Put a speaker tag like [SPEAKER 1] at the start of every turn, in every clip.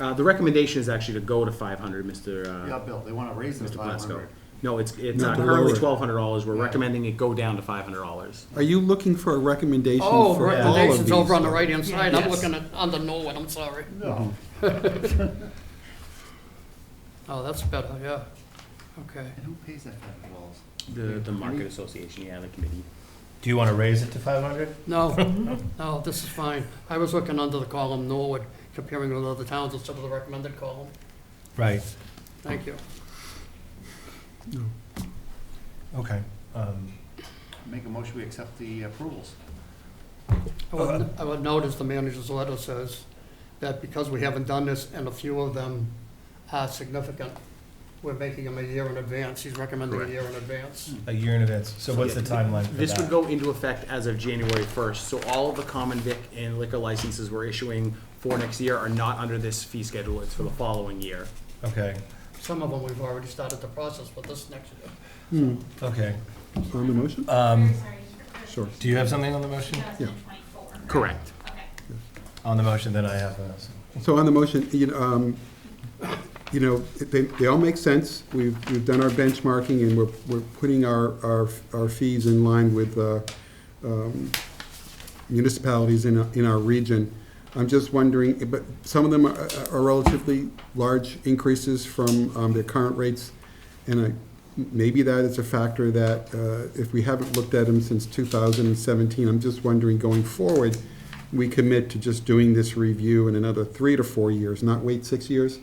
[SPEAKER 1] Uh, the recommendation is actually to go to five hundred, Mr. uh,
[SPEAKER 2] Yeah, Bill, they want to raise it
[SPEAKER 1] Mr.
[SPEAKER 2] to five
[SPEAKER 1] Plasko.
[SPEAKER 2] hundred.
[SPEAKER 1] No, it's, it's
[SPEAKER 3] Not
[SPEAKER 1] uh,
[SPEAKER 3] to
[SPEAKER 1] currently
[SPEAKER 3] lower it.
[SPEAKER 1] twelve hundred dollars, we're
[SPEAKER 2] Yeah.
[SPEAKER 1] recommending it go down to five hundred dollars.
[SPEAKER 3] Are you looking for a recommendation for all
[SPEAKER 4] Oh,
[SPEAKER 3] of these? uh,
[SPEAKER 4] recommendations over on the right-hand
[SPEAKER 5] Yeah.
[SPEAKER 4] side, I'm
[SPEAKER 1] Yes.
[SPEAKER 4] looking at, under Norwood, I'm sorry.
[SPEAKER 2] No,
[SPEAKER 4] Oh, that's better, yeah, okay.
[SPEAKER 2] and who pays that kind of bills?
[SPEAKER 1] The, the market association, yeah, the committee.
[SPEAKER 6] Do you want to raise it to 500?
[SPEAKER 4] No, no, this is fine. I was looking under the column Norwood, comparing with other towns instead of the recommended column.
[SPEAKER 6] Right,
[SPEAKER 4] Thank you.
[SPEAKER 6] okay. Um,
[SPEAKER 2] Make a motion, we accept the approvals.
[SPEAKER 4] I would, I would notice the manager's letter says that because we haven't done this and a few of them are significant, we're making them a year in advance. He's recommending a
[SPEAKER 1] Correct.
[SPEAKER 4] year in
[SPEAKER 2] Hmm.
[SPEAKER 4] advance.
[SPEAKER 6] A year in advance, so what's the timeline for
[SPEAKER 1] This would
[SPEAKER 6] that?
[SPEAKER 1] go into effect as of January first, so all of the common vic and liquor licenses we're issuing for next year are not under this fee schedule, it's for the following year.
[SPEAKER 6] Okay,
[SPEAKER 4] Some of them we've already started the process for this next year.
[SPEAKER 3] Hmm,
[SPEAKER 6] okay.
[SPEAKER 3] uh, on the motion?
[SPEAKER 6] Um,
[SPEAKER 5] Sorry,
[SPEAKER 3] Sure.
[SPEAKER 6] Do you have something on the motion?
[SPEAKER 5] 2024.
[SPEAKER 1] Correct.
[SPEAKER 5] Okay.
[SPEAKER 6] On the motion, then I have, uh, some-
[SPEAKER 3] So on the motion, you know, um, you know, they, they all make sense. We've, we've done our benchmarking and we're, we're putting our, our, our fees in line with, uh, um, municipalities in, our- in our region. I'm just wondering, but some of them are are relatively large increases from, um, their current rates. And I, maybe that is a factor that, uh, if we haven't looked at them since two thousand and seventeen, I'm just wondering going forward, we commit to just doing this review in another three to four years, not wait six years?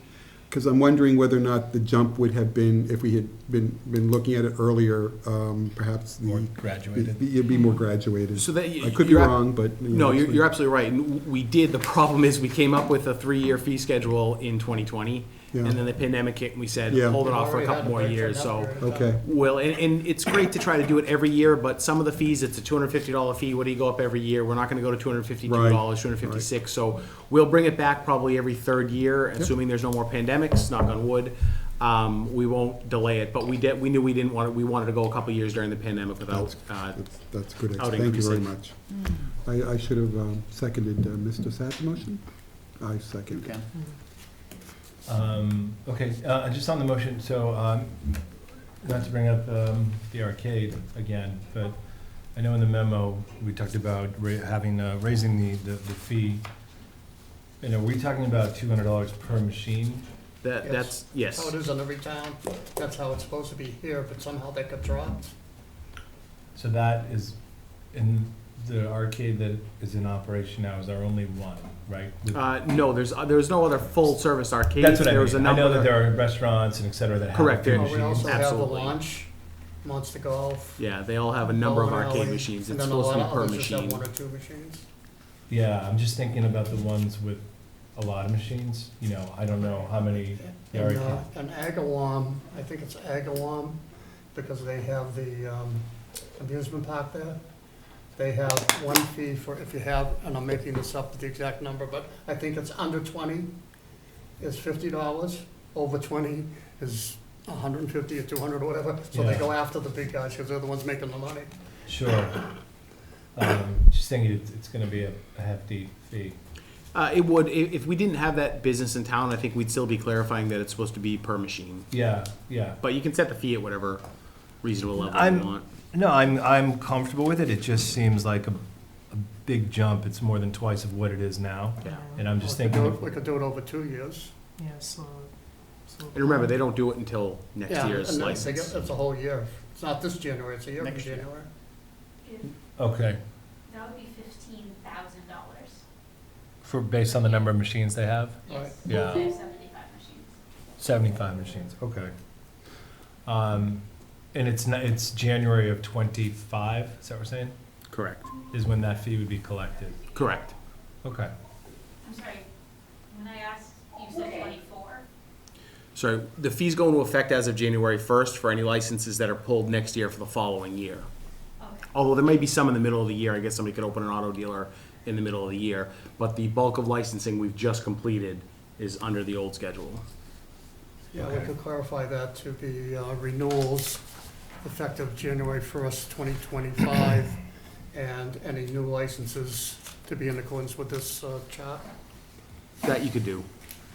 [SPEAKER 3] Because I'm wondering whether or not the jump would have been, if we had been, been looking at it earlier, um, perhaps the.
[SPEAKER 6] More graduated.
[SPEAKER 3] Be- You'd be more graduated.
[SPEAKER 1] So that y-
[SPEAKER 3] I could be
[SPEAKER 1] you're ab-
[SPEAKER 3] wrong, but. you
[SPEAKER 1] No,
[SPEAKER 3] know,
[SPEAKER 1] you're,
[SPEAKER 3] it's-
[SPEAKER 1] you're absolutely right, and w- we did, the problem is, we came up with a three-year fee schedule in twenty twenty, and
[SPEAKER 3] Yeah.
[SPEAKER 1] then the pandemic hit, and we said,
[SPEAKER 3] Yeah.
[SPEAKER 1] hold it off for a
[SPEAKER 4] Already had
[SPEAKER 1] couple more
[SPEAKER 4] break for
[SPEAKER 1] years,
[SPEAKER 4] that
[SPEAKER 1] so.
[SPEAKER 4] period of time.
[SPEAKER 3] Okay,
[SPEAKER 1] Well, and, and it's great to try to do it every year, but some of the fees, it's a two hundred fifty dollar fee, what do you go up every year? We're not gonna go to two hundred fifty-two
[SPEAKER 3] Right,
[SPEAKER 1] dollars, two hundred fifty-six, so we'll bring it back probably every third year, assuming there's no more pandemics, knock on wood. Um, we won't delay it, but we did, we knew we didn't want, it. we wanted to go a couple years during the pandemic without,
[SPEAKER 3] that's,
[SPEAKER 1] uh,
[SPEAKER 3] that's- that's good,
[SPEAKER 1] out
[SPEAKER 3] thank you very
[SPEAKER 1] increasing.
[SPEAKER 3] much. I, I should have um, seconded uh, Mr. Sapp's motion. I
[SPEAKER 2] You
[SPEAKER 3] second.
[SPEAKER 2] can.
[SPEAKER 6] um, okay, uh, just on the motion, so, um, not to bring up, um, the arcade again, but I know in the memo, we talked about ra- having, uh, raising the, the the fee. And are we talking about $200 per machine?
[SPEAKER 1] that,
[SPEAKER 4] Yes.
[SPEAKER 1] that's,
[SPEAKER 4] That's how
[SPEAKER 1] yes.
[SPEAKER 4] it is in every town. That's how it's supposed to be here, but somehow that got dropped.
[SPEAKER 6] So that is, in the arcade that is in operation now is our only one, right? With-
[SPEAKER 1] Uh, no, there's, uh, there's no other full-service arcades.
[SPEAKER 6] That's what I
[SPEAKER 1] There was a
[SPEAKER 6] mean. I know
[SPEAKER 1] number-
[SPEAKER 6] that there are restaurants and et cetera that have.
[SPEAKER 1] Correct,
[SPEAKER 6] food
[SPEAKER 1] there-
[SPEAKER 4] Well,
[SPEAKER 6] machines.
[SPEAKER 4] Uh, We also have the
[SPEAKER 1] Absolutely.
[SPEAKER 4] launch, Monster Golf.
[SPEAKER 1] Yeah, they all have a number of
[SPEAKER 4] Bowling
[SPEAKER 1] arcade
[SPEAKER 4] alley,
[SPEAKER 1] machines,
[SPEAKER 4] Oh, and
[SPEAKER 1] it's
[SPEAKER 4] then a
[SPEAKER 1] supposed to be
[SPEAKER 4] lot of
[SPEAKER 1] per
[SPEAKER 4] others just have
[SPEAKER 1] machine.
[SPEAKER 4] One or two machines.
[SPEAKER 6] Yeah, I'm just thinking about the ones with a lot of machines, you know, I don't know how many. the
[SPEAKER 4] And,
[SPEAKER 6] arcade-
[SPEAKER 4] uh, and Agawam, I think it's Agawam, because they have the um, amusement park there. They have one fee for, if you have, and I'm making this up, the exact number, but I think it's under twenty is fifty dollars, over twenty is a hundred and fifty or two hundred or whatever. So they
[SPEAKER 6] Yeah.
[SPEAKER 4] go after the big guys, because they're the ones making the money.
[SPEAKER 6] Sure. Um, Just thinking it's, it's gonna be a a hefty fee.
[SPEAKER 1] Uh, it would, i- if we didn't have that business in town, I think we'd still be clarifying that it's supposed to be per machine.
[SPEAKER 6] Yeah, yeah.
[SPEAKER 1] But you can set the fee at whatever reasonable level you
[SPEAKER 6] I'm-
[SPEAKER 1] want.
[SPEAKER 6] No, I'm, I'm comfortable with it, it just seems like a, a big jump, it's more than twice of what it is now.
[SPEAKER 1] Yeah.
[SPEAKER 6] And I'm just
[SPEAKER 4] We could do
[SPEAKER 6] thinking,
[SPEAKER 4] it- We could do it over two years.
[SPEAKER 5] Yeah, slow.
[SPEAKER 1] And remember, they don't do it until next
[SPEAKER 4] Yeah,
[SPEAKER 1] year's
[SPEAKER 4] and then they
[SPEAKER 1] license.
[SPEAKER 4] get- It's a whole year. It's not this January, it's a year from
[SPEAKER 2] Next year.
[SPEAKER 4] January.
[SPEAKER 6] okay,
[SPEAKER 5] That would be fifteen thousand dollars.
[SPEAKER 6] for, based on the number of machines they have?
[SPEAKER 4] Right.
[SPEAKER 6] Yeah.
[SPEAKER 5] They have seventy-five machines.
[SPEAKER 6] 75 machines, okay. Um, And it's, not- it's January of 25, is that what we're saying?
[SPEAKER 4] oh.
[SPEAKER 1] Correct,
[SPEAKER 6] Is when that fee would be collected?
[SPEAKER 1] correct.
[SPEAKER 6] Okay.
[SPEAKER 5] I'm sorry, when I asked, you said twenty-four?
[SPEAKER 1] So the fee's go into effect as of January first for any licenses that are pulled next year for the following year.
[SPEAKER 5] Okay.
[SPEAKER 1] Although there may be some in the middle of the year, I guess somebody could open an auto dealer in the middle of the year. But the bulk of licensing we've just completed is under the old schedule.
[SPEAKER 4] Yeah, we
[SPEAKER 6] Okay.
[SPEAKER 4] could clarify that to be uh, renewals effective January first, twenty twenty-five, and any new licenses to be in accordance with this uh, chart.
[SPEAKER 1] That you could do.